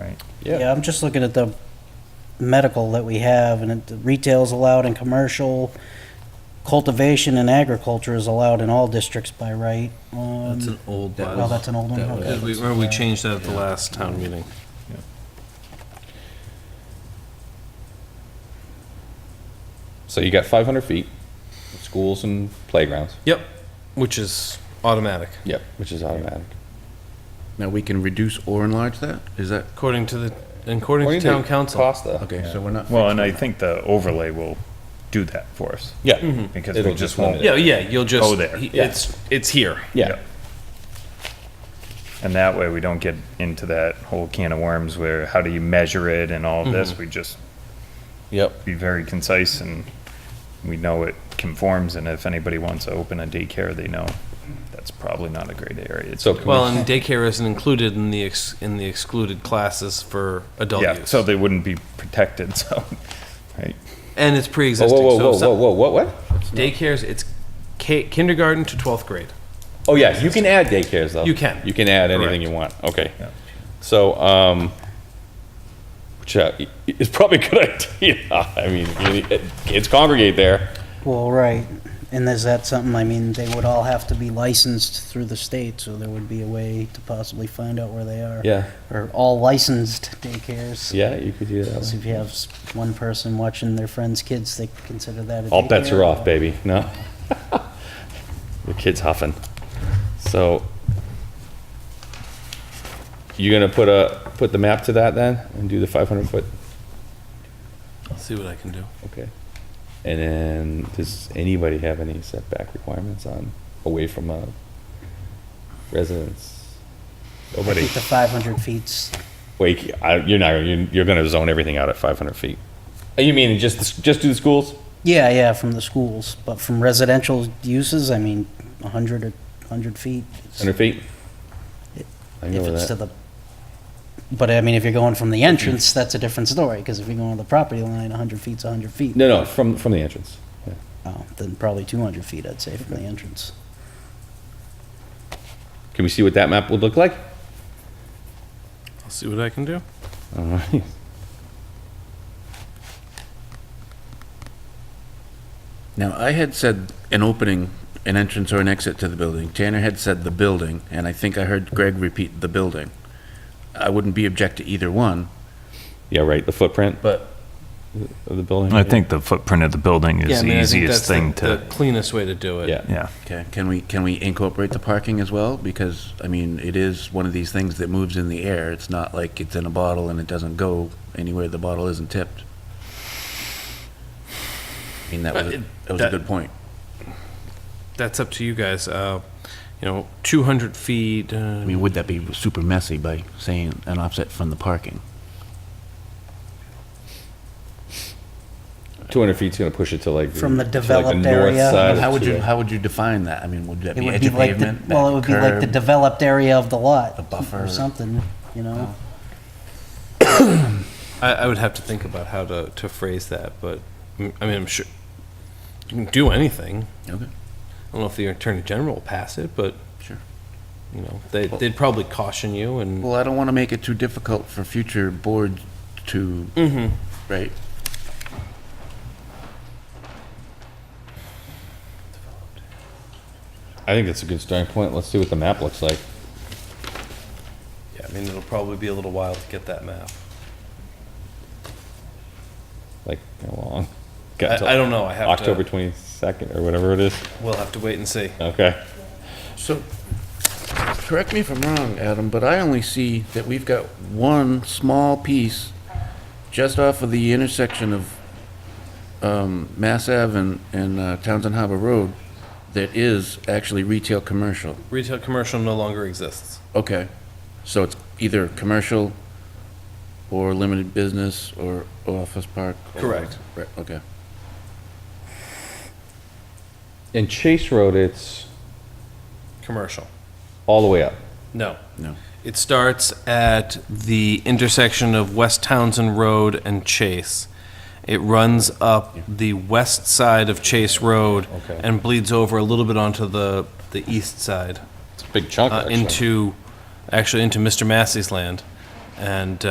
right? Yeah, I'm just looking at the medical that we have, and it- retail's allowed in commercial, cultivation and agriculture is allowed in all districts by right. Um, That's an old That Well, bylaw. that's an old one, That was- okay. We, remember we changed that at the last town meeting. So you got 500 feet, schools and playgrounds. Yep, which is automatic, Yep, which is automatic. Now, we can reduce or enlarge that? Is that, according to the, according to According town to council. Costa. okay, so we're not. Well, and I think the overlay will do that for us, Yeah. because It'll we just just limit won't, Yeah, yeah, you'll just. Go there. he- It's, it's here. Yeah. and that way we don't get into that whole can of worms where how do you measure it and all of this, we just Yep. be very concise and we know it conforms, and if anybody wants to open a daycare, they know that's probably not a great area. It's- So can Well, we, and daycare isn't included in the, ex- in the excluded classes for adult Yeah, use. so they wouldn't be protected, so, right? And it's whoa, pre-existing. Oh, whoa, so whoa, some- whoa, whoa, whoa, what? Daycares, it's ki- kindergarten to 12th grade. Oh, yeah, you can add daycares though. You can. You can add anything Correct. you want. Okay. Yeah. So, um, which uh, i- is probably a good idea. I mean, you- kids congregate there. Well, right, and is that something, I mean, they would all have to be licensed through the state, so there would be a way to possibly find out where they are. Yeah. Or all licensed daycares. Yeah, you could do that. So if you have s- one person watching their friend's kids, they consider that a All bets daycare. are off, baby. No. Your kid's huffing. So you gonna put a, put the map to that then and do the five hundred foot? I'll see what I can do. Okay. And then does anybody have any setback requirements on, away from a residence? I Nobody. think the 500 feet's Wait, I, you're not, you're, you're gonna zone everything out at five hundred feet. Uh, You mean just, the s- just do the schools? Yeah, yeah, from the schools, but from residential uses, I mean, 100 or 100 feet. it's- Hundred feet? I can go If with it's that. to the, but I mean, if you're going from the entrance, that's a different story, because if you're going to the property line, 100 feet's 100 feet. No, no, from, from the entrance. Yeah. Oh, Then probably 200 feet, I'd say, from the entrance. Can we see what that map would look like? I'll see what I can do. All right. Now, I had said an opening, an entrance or an exit to the building. Tanner had said the building, and I think I heard Greg repeat the building. I wouldn't be object to either one, Yeah, right, the footprint but of the building. I think the footprint of the building is the easiest thing The to, cleanest way to do it. Yeah. yeah. Okay, can we, can we incorporate the parking as well? Because, I mean, it is one of these things that moves in the air. It's not like it's in a bottle and it doesn't go anywhere, the bottle isn't tipped. I mean, that was, a- that was a good point. That's up to you guys. Uh, you know, 200 feet. Uh, I mean, would that be super messy by saying an offset from the parking? 200 feet's going to push it to like. From the to, like, developed north area. side of How would the you, two-way. how would you define that? I mean, would that It be would edge be of like, the- pavement? well, it would be like the curb? developed area of the lot. A buffer. Or something, you know? I, I would have to think about how to, to phrase that, but mm, I mean, I'm sure you can do anything. Okay, I don't know if the attorney general will pass it, but sure. you know, they, they'd probably caution you and Well, I don't want to make it too difficult for future boards to, Mm-hmm. right? I think that's a good starting point. Let's see what the map looks like. yeah, I mean, it'll probably be a little while to get that map. Like, how long? I, Got till I don't know. I have October To, 22nd or whatever it is. we'll have to wait and see. Okay. So, correct me if I'm wrong, Adam, but I only see that we've got one small piece just off of the intersection of um, Mass Ave and- and uh, Townsend Harbor Road that is actually retail commercial. Retail commercial no longer exists. Okay, so it's either commercial or limited business or office park? or- Correct. Right, okay. And Chase Road, it's Commercial. all the way up. No. No. It starts at the intersection of West Townsend Road and Chase. It runs up the west side of Chase Road Okay. and bleeds over a little bit onto the, the east side, It's a big chunk, uh, actually. into, actually into Mr. Massey's land. And,